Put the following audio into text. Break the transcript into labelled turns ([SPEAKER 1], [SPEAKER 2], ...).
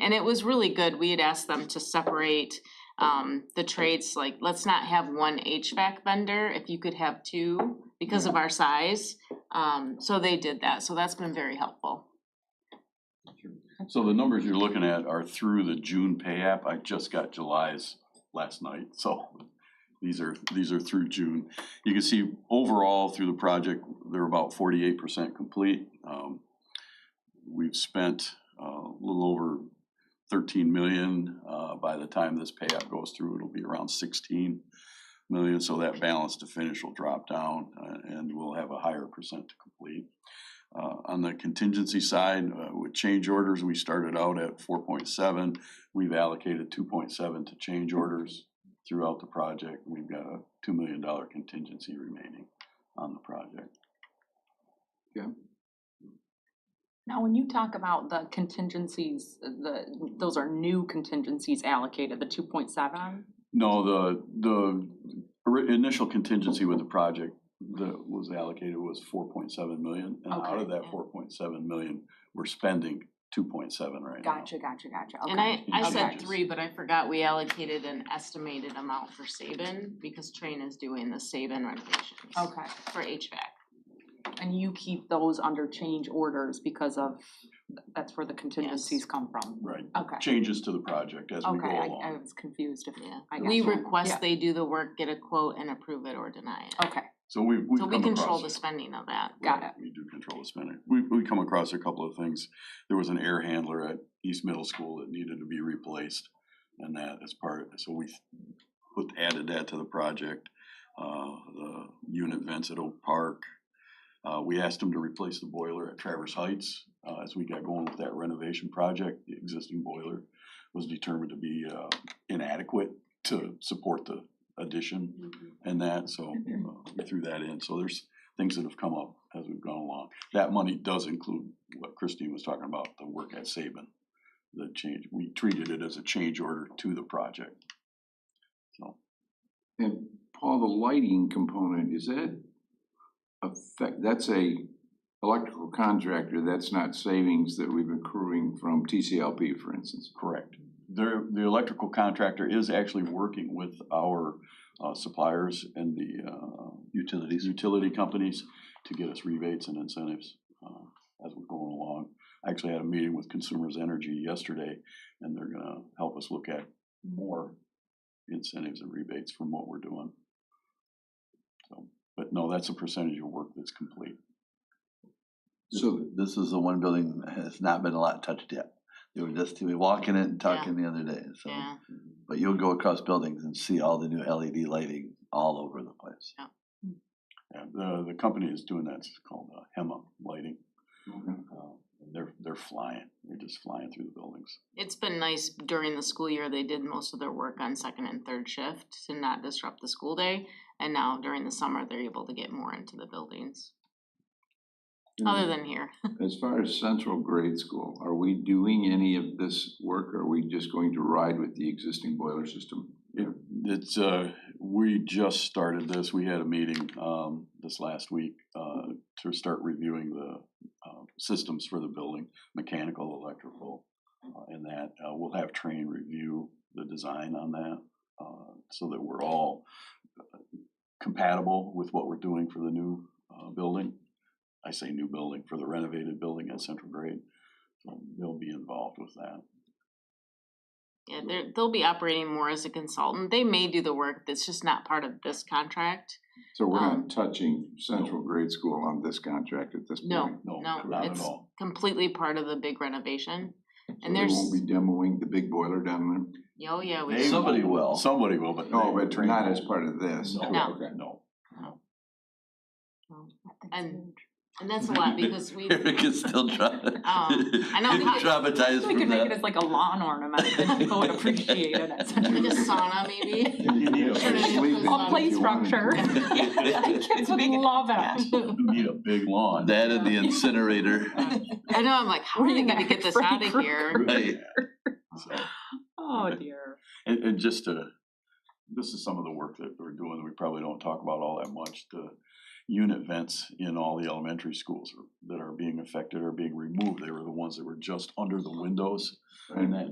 [SPEAKER 1] and it was really good, we had asked them to separate um the trades, like, let's not have one HVAC vendor, if you could have two because of our size. Um so they did that, so that's been very helpful.
[SPEAKER 2] So the numbers you're looking at are through the June pay app. I just got July's last night, so these are, these are through June. You can see overall through the project, they're about forty-eight percent complete. Um, We've spent uh, a little over thirteen million. Uh, By the time this pay app goes through, it'll be around sixteen million, so that balance to finish will drop down uh, and we'll have a higher percent to complete. Uh, on the contingency side, uh, with change orders, we started out at four point seven. We've allocated two point seven to change orders throughout the project. We've got a two million dollar contingency remaining on the project.
[SPEAKER 3] Now, when you talk about the contingencies, uh, the, those are new contingencies allocated, the two point seven?
[SPEAKER 2] No, the, the ori- initial contingency with the project that was allocated was four point seven million. And out of
[SPEAKER 3] Okay.
[SPEAKER 2] that four point seven million, we're spending two point seven right now.
[SPEAKER 3] Gotcha, gotcha, gotcha, okay.
[SPEAKER 1] And I I said
[SPEAKER 2] Okay.
[SPEAKER 1] three, but I forgot we allocated an estimated amount for Saban because Train is doing the Saban renovations
[SPEAKER 3] Okay,
[SPEAKER 1] for HVAC.
[SPEAKER 3] and you keep those under change orders because of, that's where the contingencies come from?
[SPEAKER 2] Right,
[SPEAKER 3] Okay,
[SPEAKER 2] changes to the project as we go
[SPEAKER 3] okay, I,
[SPEAKER 2] along.
[SPEAKER 3] I was confused if,
[SPEAKER 1] Yeah,
[SPEAKER 3] I
[SPEAKER 1] we
[SPEAKER 3] gotcha.
[SPEAKER 1] request
[SPEAKER 3] Yeah. Oh,
[SPEAKER 1] they do the work, get a quote and approve it or deny it.
[SPEAKER 3] okay,
[SPEAKER 2] So we, we've
[SPEAKER 1] So
[SPEAKER 2] come
[SPEAKER 1] we control
[SPEAKER 2] across-
[SPEAKER 1] the spending of that.
[SPEAKER 3] got
[SPEAKER 2] Right,
[SPEAKER 3] it.
[SPEAKER 2] We do control the spending. We, we come across a couple of things. There was an air handler at East Middle School that needed to be replaced. And that is part, so we put, added that to the project. Uh, the unit vents at Oak Park. Uh, we asked them to replace the boiler at Traverse Heights. Uh, as we got going with that renovation project, the existing boiler was determined to be, uh, inadequate to support the addition
[SPEAKER 3] Mm-hmm.
[SPEAKER 2] and that, so uh, we threw that in. So there's things that have come up as we've gone along. That money does include what Christine was talking about, the work at Saban. The change, we treated it as a change order to the project. So,
[SPEAKER 4] And Paul, the lighting component, is that affect, that's a electrical contractor, that's not savings that we've accruing from TCLP, for instance.
[SPEAKER 2] correct. There, the electrical contractor is actually working with our uh, suppliers and the uh, Utilities. Utility companies to get us rebates and incentives uh, as we're going along. I actually had a meeting with Consumers Energy yesterday, and they're gonna help us look at more incentives and rebates from what we're doing. So, but no, that's a percentage of work that's complete.
[SPEAKER 4] So,
[SPEAKER 5] This is the one building that has not been a lot touched yet. They were just, we walk in it and talking the other day, so.
[SPEAKER 1] Yeah,
[SPEAKER 5] But you'll go across buildings and see all the new LED lighting all over the place.
[SPEAKER 2] Yeah, the, the company is doing that, it's called uh, Hema Lighting. Uh, and They're, they're flying, they're just flying through the buildings.
[SPEAKER 1] it's been nice during the school year, they did most of their work on second and third shift to not disrupt the school day. And now during the summer, they're able to get more into the buildings,
[SPEAKER 4] Mm-hmm.
[SPEAKER 1] other than here.
[SPEAKER 4] as far as central grade school, are we doing any of this work, or are we just going to ride with the existing boiler system?
[SPEAKER 2] It- It's, uh, we just started this, we had a meeting, um, this last week, uh, to start reviewing the, uh, systems for the building, mechanical, electrical, uh, and that, uh, we'll have train review the design on that, uh, so that we're all uh, compatible with what we're doing for the new, uh, building. I say new building, for the renovated building at Central Grade, so they'll be involved with that.
[SPEAKER 1] Yeah, they're, they'll be operating more as a consultant. They may do the work that's just not part of this contract.
[SPEAKER 4] So we're
[SPEAKER 1] Um,
[SPEAKER 4] not touching central grade school on this contract at this point?
[SPEAKER 1] No,
[SPEAKER 2] No,
[SPEAKER 1] no,
[SPEAKER 2] not at
[SPEAKER 1] it's
[SPEAKER 2] all.
[SPEAKER 1] completely part of the big renovation.
[SPEAKER 4] So
[SPEAKER 1] And
[SPEAKER 4] we
[SPEAKER 1] there's,
[SPEAKER 4] won't be demoing the big boiler down
[SPEAKER 1] oh yeah, we.
[SPEAKER 2] They
[SPEAKER 1] do.
[SPEAKER 5] Somebody will.
[SPEAKER 2] Somebody will, but.
[SPEAKER 4] there? Oh,
[SPEAKER 2] they-
[SPEAKER 4] but not as part of this?
[SPEAKER 2] No.
[SPEAKER 1] No.
[SPEAKER 4] Okay.
[SPEAKER 2] No.
[SPEAKER 1] And- And that's a lot because we, um,
[SPEAKER 5] Eric is still trying.
[SPEAKER 1] I know how-
[SPEAKER 5] Traumatized
[SPEAKER 3] We could
[SPEAKER 5] from
[SPEAKER 3] make it
[SPEAKER 5] that.
[SPEAKER 3] as like a lawn ornament, and people would appreciate it at Central
[SPEAKER 1] like a sauna maybe.
[SPEAKER 2] You need
[SPEAKER 1] Turn it into a
[SPEAKER 2] a,
[SPEAKER 4] Leave it.
[SPEAKER 1] sauna.
[SPEAKER 3] A play
[SPEAKER 4] If you wanted
[SPEAKER 3] structure.
[SPEAKER 4] to.
[SPEAKER 3] Yeah, Kids would love it.
[SPEAKER 2] you need a big lawn.
[SPEAKER 5] That and the incinerator.
[SPEAKER 1] I know, I'm like, how are they gonna get this out of here?
[SPEAKER 5] Right.
[SPEAKER 2] So,
[SPEAKER 3] Oh dear.
[SPEAKER 2] And, and just to, this is some of the work that we're doing, that we probably don't talk about all that much, the unit vents in all the elementary schools that are being affected are being removed. They were the ones that were just under the windows.
[SPEAKER 4] And
[SPEAKER 2] that